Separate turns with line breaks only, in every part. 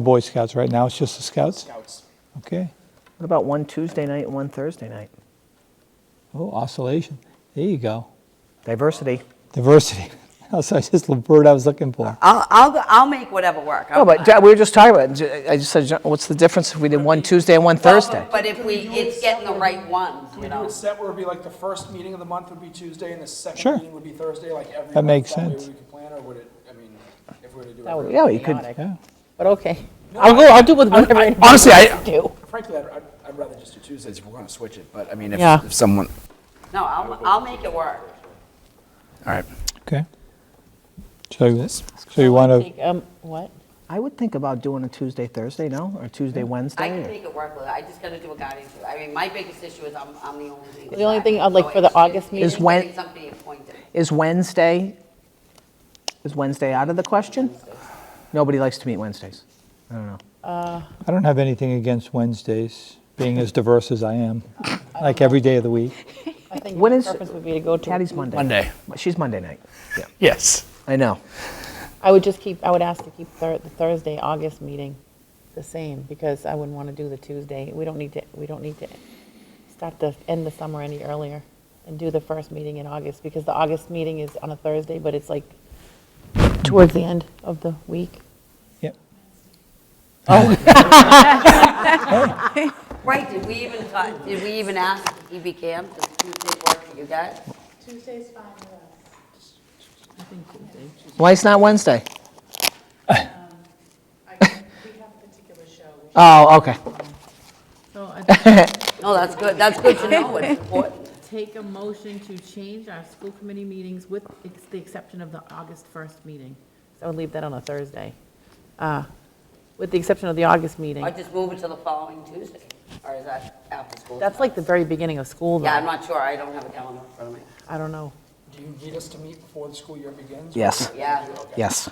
Boy Scouts right now, it's just the Scouts?
Scouts.
Okay.
What about one Tuesday night and one Thursday night?
Oh, oscillation. There you go.
Diversity.
Diversity. That's just the word I was looking for.
I'll, I'll, go- I'll make whatever work.
Oh, but Jack, we were just talking about, it. I just said, what's the difference if we did one Tuesday and one Thursday?
But if we, it's getting the right ones,
Can
you
we do
know?
it set where it'd be like the first meeting of the month would be Tuesday and the second
Sure.
meeting would be Thursday, like every month?
That makes
way
sense.
we could plan, or would it, I mean, if we were to do it.
That would
every-
be
Yeah, you could-
chaotic.
Yeah.
But okay, I'll go, I'll do with whatever. anybody
honestly, I-
wants to do.
Frankly, I'd, I'd- I'd rather just do Tuesdays if we're gonna switch it, but I mean, if,
Yeah.
if someone,
No, I'll, I'll make it work.
all right.
Okay. So, so you want to,
Think, Um, what?
I would think about doing a Tuesday, Thursday, no? Or Tuesday,
Mm-hmm. I
Wednesday?
can make it work, with it. I just gotta do a guidance. I mean, my biggest issue is I'm, I'm the only legal.
The only thing,
advisor,
uh, like,
so
for the
it's just-
August meeting?
Is when-
getting Somebody appointed.
Is Wednesday, is Wednesday out of the question? Nobody likes to meet Wednesdays. I don't know.
I don't have anything against Wednesdays, being as diverse as I am, like every day of the week.
I think
When
my
is-
preference would be to go to.
Patty's Monday.
Monday.
She's Monday night. Yeah,
Yes.
I know.
I would just keep, I would ask to keep Thur- the Thursday, August meeting the same, because I wouldn't want to do the Tuesday. We don't need to, we don't need to start the, end the summer any earlier and do the first meeting in August, because the August meeting is on a Thursday, but it's like towards the end of the week.
Yep.
Right, did we even, talk- did we even ask E EB Camp, does Tuesday work for you guys?
Why it's not Wednesday? Oh, okay.
So I think
No, that's good, that's good to know, it's important.
take a motion to change our school committee meetings with ex- the exception of the August 1st meeting.
So I would leave that on a Thursday, uh, with the exception of the August meeting.
I just move it to the following Tuesday, or is that after school?
That's like the very beginning of school, though.
Yeah, I'm not sure, I don't have a calendar in front of me.
I don't know.
Do you need us to meet before the school year begins?
Yes,
Yeah,
yes.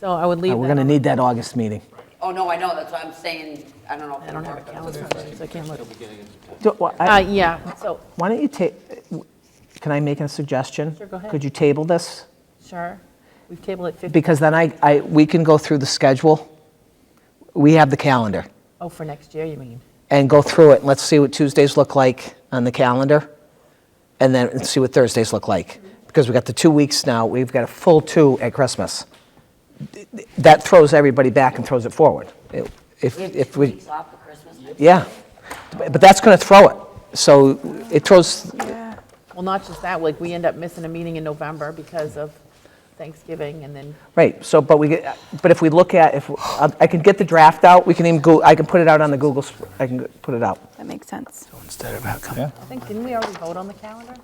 So I would leave
Uh,
that.
We're going to
on-
need that August meeting.
oh, no, I know, that's why I'm saying, I don't know if
I don't
it'll
have a
work.
calendar, for it, so I can't look.
Do- wha- I-
Uh, yeah, so,
Why don't you take, can I make a suggestion?
Sure, go ahead.
Could you table this?
sure. We've tabled it 50,
Because then I, I, we can go through the schedule. We have the calendar
oh, for next year, you mean?
and go through it. Let's see what Tuesdays look like on the calendar and then see what Thursdays look like. Because we've got the two weeks now, we've got a full two at Christmas. That throws everybody back and throws it forward. It- If,
We have
if
two
we,
weeks off for Christmas.
yeah. But but that's going to throw it. So it throws,
Well, not just that, like, we end up missing a meeting in November because of Thanksgiving, and then,
Right, so, but we, get- but if we look at, if, I can get the draft out, we can even go, I can put it out on the Google, Sp- I can put it out.
That makes sense.
I think, didn't we already vote on the calendar?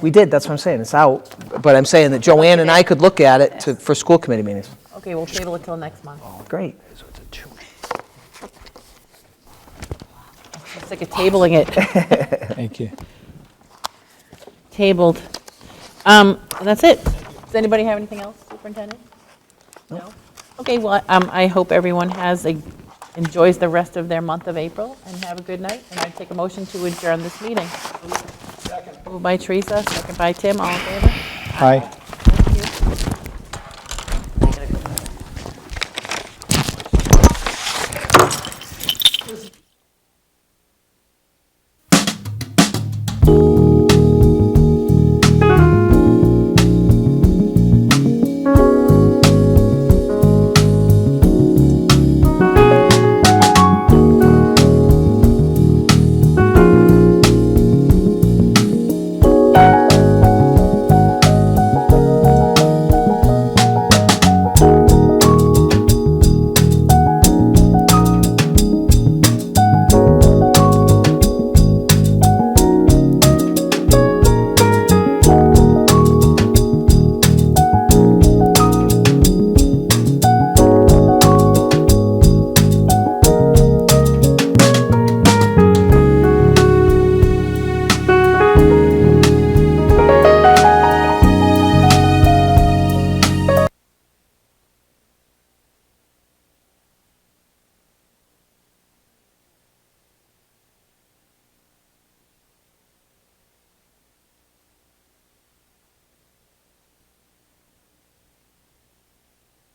We did, that's what I'm saying, it's out, but I'm saying that Joanne and I could look at it to, for school committee meetings.
Okay, we'll table it till next month.
Great.
I'm sick of tabling it.
Thank you.
Tabled. Um, and that's it. Does anybody have anything else, Superintendent? No? Okay, well, um, I hope everyone has a, enjoys the rest of their month of April, and have a good night, and I take a motion to adjourn this meeting. Moved by Teresa, second by Tim, all in favor?
Hi.